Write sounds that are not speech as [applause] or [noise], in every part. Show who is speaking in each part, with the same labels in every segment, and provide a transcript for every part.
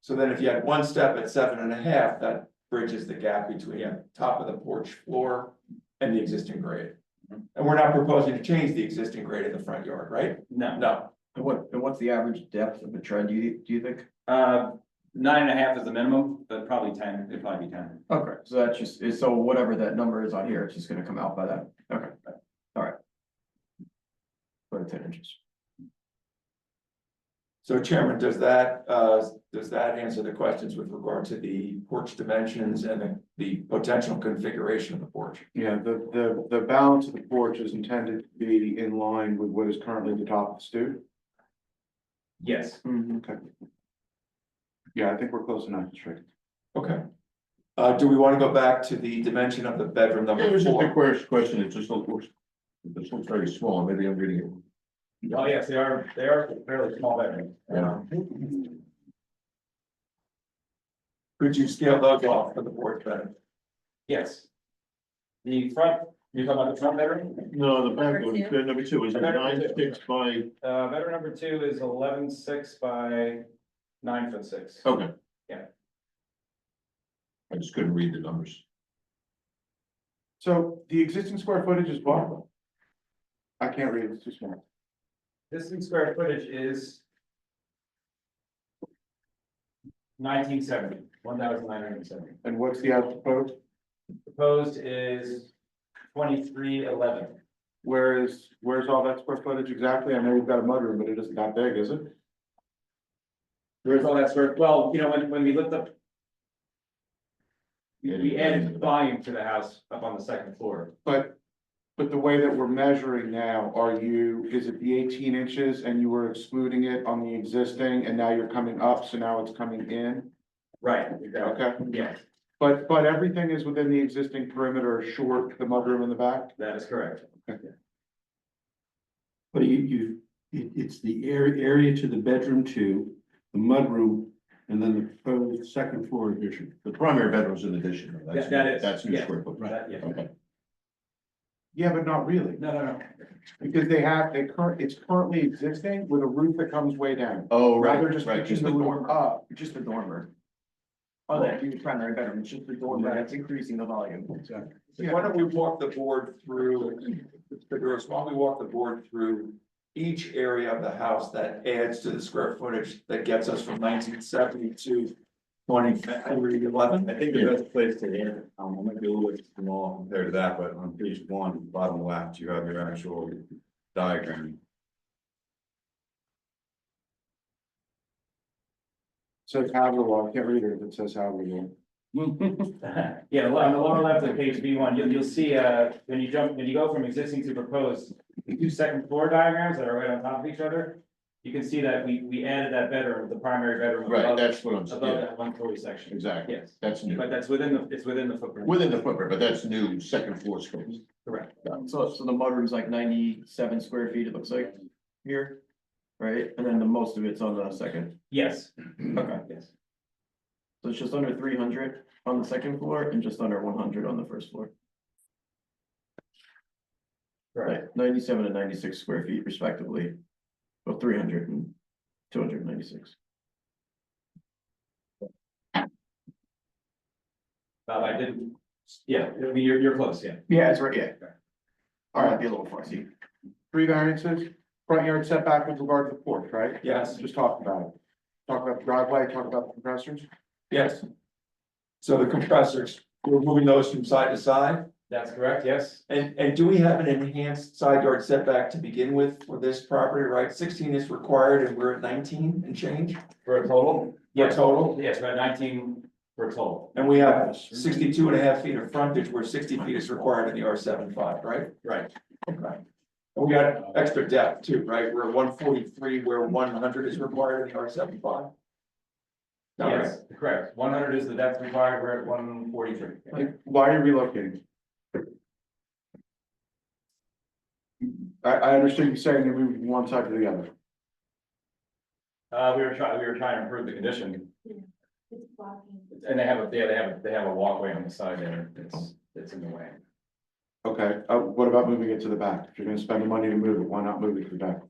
Speaker 1: So then if you had one step at seven and a half, that bridges the gap between the top of the porch floor and the existing grade.
Speaker 2: Mm-hmm.
Speaker 1: And we're not proposing to change the existing grade in the front yard, right?
Speaker 3: No,
Speaker 1: No,
Speaker 2: And what, and what's the average depth of a tread, do you, do you think?
Speaker 3: uh, nine and a half is the minimum, but probably ten, it'd probably be ten.
Speaker 2: Okay, so that's just, is- so whatever that number is on here, it's just gonna come out by that, okay, alright. Put it ten inches.
Speaker 1: so Chairman, does that, uh, does that answer the questions with regard to the porch dimensions and the, the potential configuration of the porch?
Speaker 4: Yeah, the, the, the balance of the porch is intended to be in line with what is currently the top of the stoop. Mm-hmm,
Speaker 3: Yes,
Speaker 4: Okay. Yeah, I think we're close enough, it's right.
Speaker 1: Okay. Uh, do we want to go back to the dimension of the bedroom
Speaker 5: It
Speaker 1: number
Speaker 5: was just a
Speaker 1: four?
Speaker 5: question, question, it just looks, this looks very small, maybe I'm reading it.
Speaker 3: oh, yes, they are, they are fairly small bedrooms.
Speaker 5: Yeah.
Speaker 1: Could you scale those off for the porch better?
Speaker 3: Yes. The front, you're talking about the front bedroom?
Speaker 5: No, the
Speaker 6: back one, Number
Speaker 5: number two, is
Speaker 3: it nine six
Speaker 5: by?
Speaker 3: Uh, bedroom number two is eleven six by nine foot six.
Speaker 5: Okay.
Speaker 3: Yeah.
Speaker 5: I just couldn't read the numbers.
Speaker 4: So the existing square footage is what? I can't read, it's too small.
Speaker 3: This in square footage is. Nineteen seventy, one thousand nine hundred and seventy.
Speaker 4: And what's the actual code?
Speaker 3: Proposed is twenty-three eleven.
Speaker 4: Where is, where's all that square footage exactly? I know you've got a mudroom, but it isn't that big, is it?
Speaker 3: There's all that sort of, well, you know, when, when we looked up. We, we added volume to the house up on the second floor.
Speaker 4: But, but the way that we're measuring now, are you, is it the eighteen inches and you were excluding it on the existing and now you're coming up, so now it's coming in?
Speaker 3: Right.
Speaker 4: Okay,
Speaker 3: Yes,
Speaker 4: but, but everything is within the existing perimeter, short the mudroom in the back?
Speaker 3: that is correct.
Speaker 7: But you, you, it, it's the area, area to the bedroom two, the mudroom, and then the proposed second floor addition.
Speaker 5: The primary bedroom's an addition. though. That's-
Speaker 3: That- that is,
Speaker 5: That's new
Speaker 3: yeah.
Speaker 5: square foot.
Speaker 3: That- yeah. [laughs]
Speaker 5: Okay.
Speaker 4: Yeah, but not really,
Speaker 3: No, no, no.
Speaker 4: because they have, they current, it's currently existing with a roof that comes way down.
Speaker 5: Oh,
Speaker 4: Now
Speaker 5: right,
Speaker 4: they're just
Speaker 5: right,
Speaker 4: pushing
Speaker 5: just
Speaker 4: the
Speaker 5: the
Speaker 4: roof
Speaker 5: dormer.
Speaker 4: up.
Speaker 2: Just the dormer. Oh, that new primary bedroom, it's just the dormer, that's increasing the volume.
Speaker 4: Yeah.
Speaker 1: Why don't we walk the board through, Mr. Gross, why don't we walk the board through each area of the house that adds to the square footage that gets us from nineteen seventy to twenty three eleven?
Speaker 8: I think the best place to end, um, I might be a little bit small compared to that, but on page one, bottom left, you have your actual diagram.
Speaker 4: So it's habitable, I can't read it if it says habitable.
Speaker 3: Yeah, well, on the lower left of page B one, you'll, you'll see, uh, when you jump, when you go from existing to proposed, the two second floor diagrams that are right on top of each other. You can see that we, we added that bedroom, the primary bedroom.
Speaker 5: Right,
Speaker 3: above-
Speaker 5: that's what I'm,
Speaker 3: Above
Speaker 5: yeah,
Speaker 3: that one story section,
Speaker 5: exactly,
Speaker 3: yes,
Speaker 5: that's new,
Speaker 3: but that's within the, it's within the footprint.
Speaker 5: within the footprint, but that's new, second floor space.
Speaker 2: So, so the mudroom's like ninety-seven square feet, it looks like, here, right, and then the most of it's on the second,
Speaker 5: [clears throat]
Speaker 3: Yes,
Speaker 2: okay,
Speaker 3: yes,
Speaker 2: so it's just under three hundred on the second floor and just under one hundred on the first floor.
Speaker 3: right,
Speaker 2: Right, ninety-seven and ninety-six square feet respectively, of 300 and 296.
Speaker 3: Bob, I didn't, yeah, I mean, you're, you're close, yeah.
Speaker 2: Yeah, it's right, yeah.
Speaker 4: All
Speaker 2: All
Speaker 4: right.
Speaker 2: right, be a little fussy.
Speaker 4: Three variances, front yard setback with regard to the porch, right?
Speaker 1: Yes,
Speaker 4: Just talk about it. Talk about the driveway, talk about the compressors.
Speaker 1: yes. So the compressors, we're moving those from side to side?
Speaker 3: That's correct, yes.
Speaker 1: And, and do we have an enhanced side yard setback to begin with for this property, right? Sixteen is required and we're at nineteen and change
Speaker 3: For a total?
Speaker 1: for
Speaker 3: Yes,
Speaker 1: total.
Speaker 3: yes, about nineteen for a total.
Speaker 1: And we have 62 and a half feet of frontage where sixty feet is required in the R 75 right?
Speaker 3: Right.
Speaker 1: Okay. And we got extra depth too, right? We're at one forty-three where one hundred is required in the R 75
Speaker 3: Yes, correct. One hundred is the depth required, we're at one forty-three.
Speaker 4: Like, why are you relocating? I, I understand you saying you moved from one side to the other.
Speaker 3: Uh, we were trying, we were trying to improve the condition,
Speaker 6: It's blocking.
Speaker 3: and they have a, yeah, they have, a they have a walkway on the side there, it's, it's in the way.
Speaker 4: Okay, uh, what about moving it to the back? If you're gonna spend the money to move it, why not move it to the back?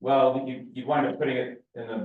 Speaker 3: Well, you, you wind up putting it in the